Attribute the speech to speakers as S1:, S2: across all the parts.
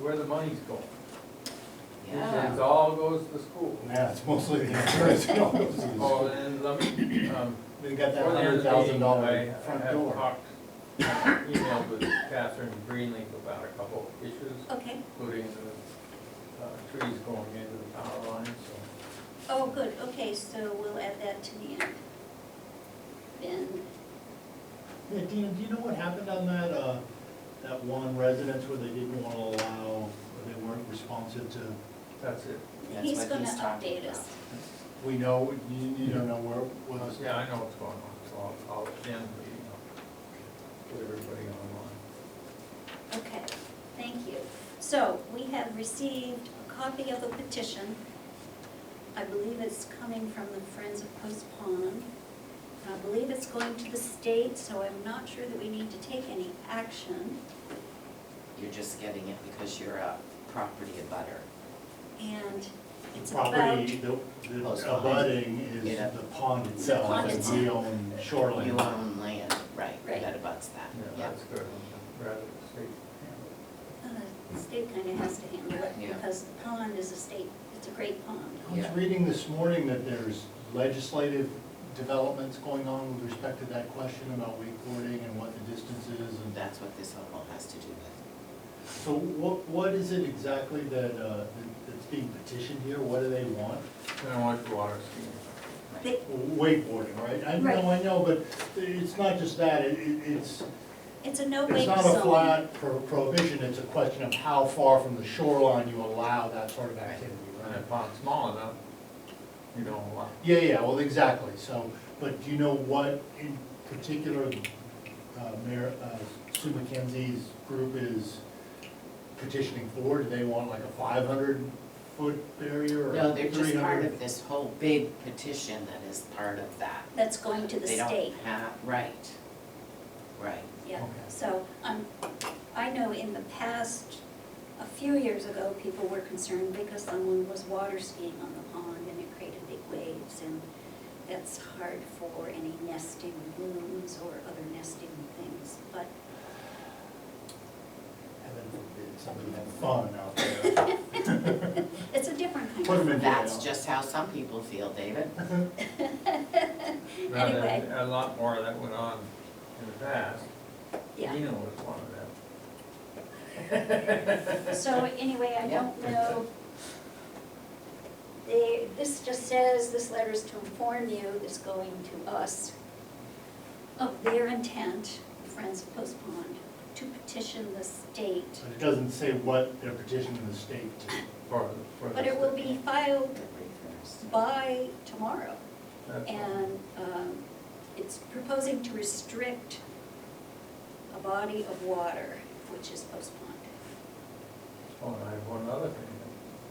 S1: where the money's going.
S2: Yeah.
S1: It all goes to the school.
S3: Yeah, it's mostly the insurance.
S1: Oh, and let me, um,
S3: We got that
S1: Before the end
S3: hundred
S1: of the
S3: thousand
S1: meeting,
S3: dollar
S1: I-
S3: front
S1: I have
S3: door.
S1: talked, emailed with Catherine Greenleaf about a couple of issues,
S4: Okay,
S1: including the uh, trees going into the power line, so.
S4: oh, good, okay, so we'll add that to the end. Then,
S3: Yeah, Dina, do you know what happened on that, uh, that one residence where they didn't wanna allow, or they weren't responsive to?
S1: That's it.
S2: That's
S4: he's
S2: what
S4: gonna
S2: talking
S4: update
S2: about.
S4: us.
S3: We know, you, you don't know where, where those.
S1: Yeah, I know what's going on, so I'll, I'll end the meeting. I'll Put everybody online.
S4: Okay, thank you. So, we have received a copy of the petition. I believe it's coming from the Friends of Post Pond. I believe it's going to the state, so I'm not sure that we need to take any action.
S2: You're just getting it because you're a property abutter.
S4: And it's about.
S3: Property, the,
S1: Oh,
S3: the
S2: Close behind.
S3: abutting is
S2: Yeah.
S3: the pond itself,
S4: pond
S3: and
S4: itself.
S3: we own shoreline.
S2: You own land, right,
S4: Right.
S2: that abuts that,
S1: Yeah,
S2: yeah.
S1: that's good. I'm Rather than state.
S4: Uh, The state kind of has to handle it
S2: Yeah.
S4: because the pond is a state, it's a great pond.
S3: I was
S2: Yeah.
S3: reading this morning that there's legislative developments going on with respect to that question about wakeboarding and what the distance is and.
S2: That's what this whole has to do with.
S3: So what, what is it exactly that, uh, that's being petitioned here? What do they want?
S1: And I want the water skiing.
S2: right.
S4: They-
S3: Wakeboarding, right? I
S4: Right.
S3: know, I know, but it's not just that, it, it- it's,
S4: It's a no-wake
S3: it's
S4: zone.
S3: not a flat pro- prohibition, it's a question of how far from the shoreline you allow that sort of activity,
S1: And
S3: right?
S1: if it's small enough, you don't want.
S3: Yeah, yeah, well, exactly, so, but do you know what in particular, uh, Mayor, uh, Sue McKenzie's group is petitioning for? Do they want like a five hundred foot barrier or three
S2: No,
S3: hundred?
S2: they're just part of this whole big petition that is part of that.
S4: That's going to the
S2: They don't
S4: state,
S2: have- Right, right.
S4: yeah.
S3: Okay.
S4: So, um, I know in the past, a few years ago, people were concerned because someone was water skiing on the pond and it created big waves and that's hard for any nesting blooms or other nesting things, but
S3: Heaven forbid somebody had fun out there.
S4: it's a different kind of.
S3: Put 'em in
S2: That's
S3: jail.
S2: just how some people feel, David.
S1: Now, there-
S4: Anyway.
S1: A lot more of that went on in the past.
S4: Yeah.
S1: Dina was one of them.
S4: So anyway, I don't know. They, this just says, this letter is to inform you, this going to us, of their intent, Friends of Post Pond, to petition the state.
S3: But it doesn't say what they're petitioning the state to.
S1: for- for
S4: But
S1: this.
S4: it will be filed
S2: February first.
S4: by tomorrow.
S1: That's all.
S4: And um, it's proposing to restrict a body of water, which is Post Pond.
S1: Oh, and I have one other thing.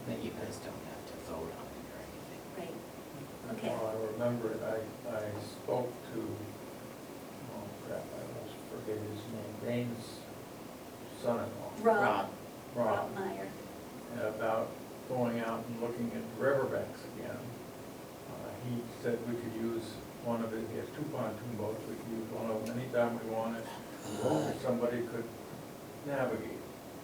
S2: But you guys don't have to vote on it or anything.
S4: Right.
S1: And
S4: Okay.
S1: While I remember it, I, I spoke to, oh crap, I almost forget his name, Dane's son-in-law,
S4: Rob,
S1: Rob,
S4: Rob Meyer.
S1: about going out and looking at riverbanks again. Uh, He said we could use one of his, he has two pontoon boats, we could use one of them anytime we wanted, or somebody could navigate.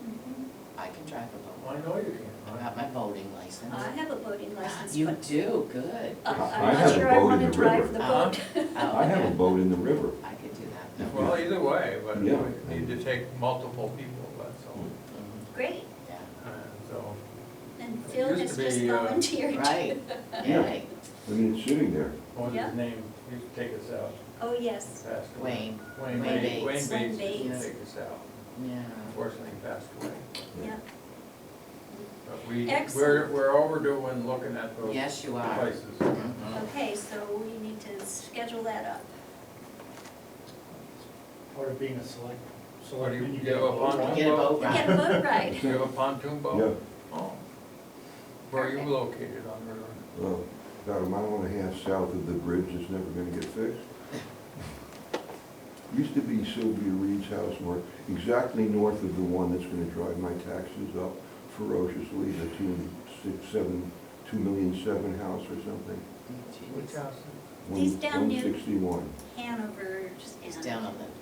S4: Mhm.
S2: I can drive a boat.
S1: I know you can,
S2: I
S1: right?
S2: got my boating license.
S4: I have a boating license,
S2: Ah, You
S4: but
S2: do, good.
S4: Uh,
S5: I
S4: I'm
S5: have
S4: not
S5: a
S4: sure I
S5: boat in
S4: want to
S5: the
S4: drive
S5: river.
S4: the
S2: Uh-huh.
S4: boat.
S2: Oh,
S5: I have a
S2: okay.
S5: boat in the river.
S2: I could do that. no.
S1: Well, either way, but we
S5: Yeah.
S1: need to take multiple people, that's all.
S2: Mhm,
S4: Great,
S2: Yeah,
S1: And so,
S4: and
S1: It
S4: Phil
S1: used
S4: has
S1: to
S4: just
S1: be, uh,
S4: volunteered.
S2: right,
S5: Yeah.
S2: right.
S5: I mean, it's sitting there.
S1: what was
S4: Yeah.
S1: his name, he used to take us out,
S4: Oh, yes,
S1: passed away.
S2: Wayne,
S1: Wayne
S2: Wayne
S1: Bates,
S2: Bates.
S1: Wayne
S4: Wayne
S1: Bates used
S2: Bates.
S1: to take us out,
S2: yeah.
S1: unfortunately he passed away.
S4: yeah,
S1: But we, we're,
S4: Excellent.
S1: we're overdue in looking at those
S2: Yes, you are.
S1: places.
S4: Mm-hmm.
S2: Mhm.
S4: okay, so we need to schedule that up.
S3: Part of being a select.
S1: What do you-
S3: selectman,
S1: you have a
S3: boat
S1: pontoon
S3: ride.
S2: Get a boat
S4: We Get a
S2: ride.
S4: boat ride,
S1: Do you have a pontoon boat? Oh. Where are you
S4: Perfect.
S1: located on the river?
S5: Well, about a mile and a half south of the bridge that's never gonna get fixed. Used to be Sylvia Reed's house, we exactly north of the one that's gonna drive my taxes up ferociously, the two, six, seven, two million seven house or something.
S2: Jeez.
S1: Which house?
S5: One-
S4: He's down near-
S5: 161.
S4: Hanover, just
S2: It's
S4: down.
S2: down on the